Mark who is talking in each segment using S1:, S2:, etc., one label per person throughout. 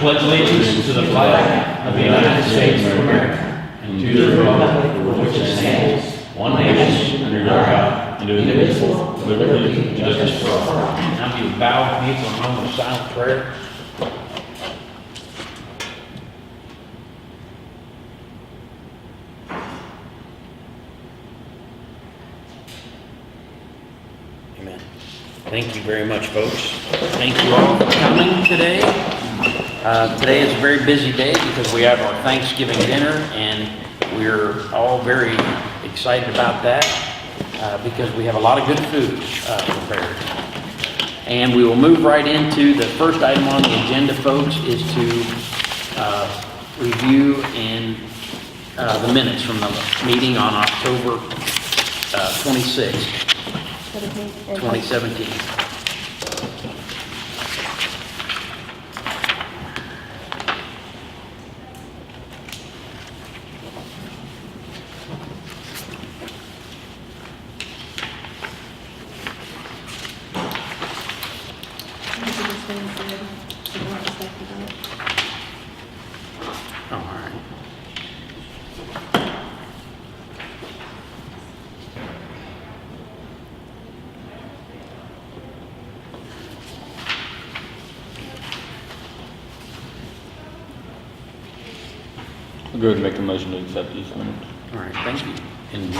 S1: pledge allegiance to the flag of the United States of America and to the republic for which it stands, one nation, under God, indivisible, with liberty and justice for all. Now you bow with me for a moment of silent prayer. Amen. Thank you very much, folks. Thank you all for coming today. Uh, Today is a very busy day because we have our Thanksgiving dinner, and we're all very excited about that uh, because we have a lot of good food uh, prepared. And we will move right into, the first item on the agenda, folks, is to uh, review in uh, the minutes from the meeting on October uh, 26th. 2017. All right.
S2: I'll go ahead and make a motion to accept these minutes.
S1: All right, thank you. And,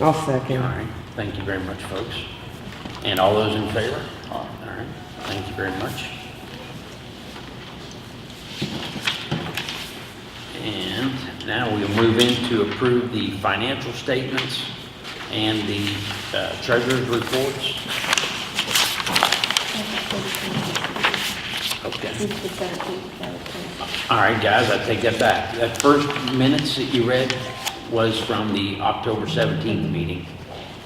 S1: all
S3: I'll second.
S1: right, thank you very much, folks. And all those in favor? All right, thank you very much. And now we'll move in to approve the financial statements and the uh, treasurer's reports. Okay. All right, guys, I take that back. That first minutes that you read was from the October 17th meeting,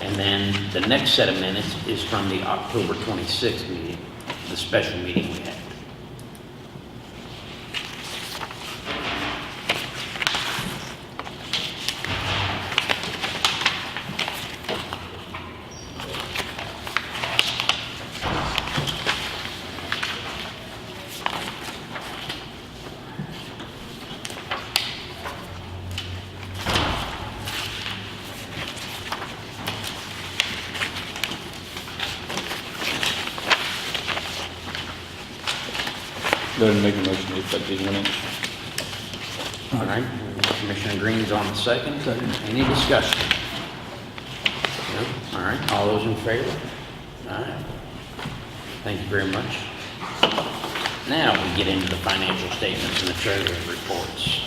S1: and then the next set of minutes is from the October 26th meeting, the special meeting we had.
S2: Go ahead and make a motion to accept these minutes.
S1: All right, Commissioner Green's on the second. Any discussion? No? All right, all those in favor? All right. Thank you very much. Now we get into the financial statements and the treasurer's reports.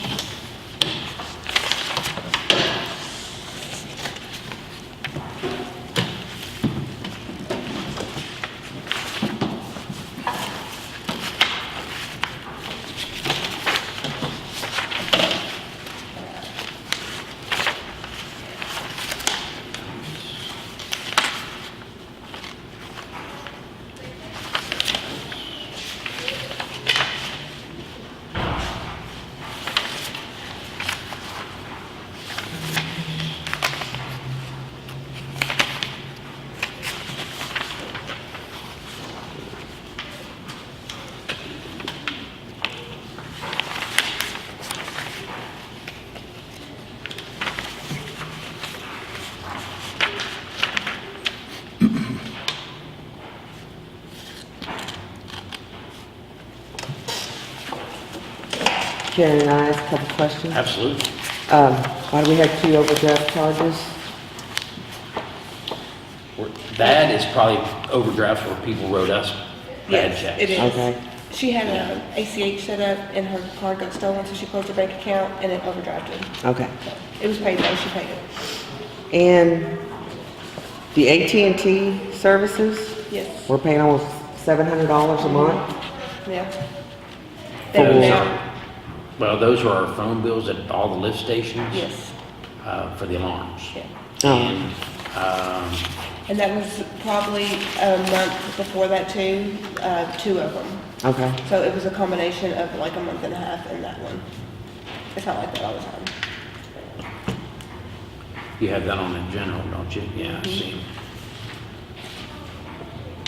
S3: Karen and I ask a couple questions.
S1: Absolutely.
S3: Um, why do we have two overdraft charges?
S1: We're- That is probably overdraft where people wrote us bad
S4: Yes, it
S1: checks.
S4: is.
S3: Okay.
S4: She had an ACH set up and her card got stolen, so she closed her bank account and it overdrafted.
S3: Okay.
S4: It was paid though, she paid it.
S3: And the AT&T services,
S4: Yes,
S3: we're paying almost seven hundred dollars a month?
S4: yeah.
S3: For-
S4: That amount,
S1: Well, those are our phone bills at all the lift stations.
S4: yes,
S1: uh, For the alarms.
S4: yeah.
S3: Oh,
S1: Um,
S4: And that was probably a month before that too, uh, two of them.
S3: okay.
S4: So it was a combination of like a month and a half and that one. It's not like that all the time. Mm-hmm.
S1: You have that on the general, don't you? Yeah, I see.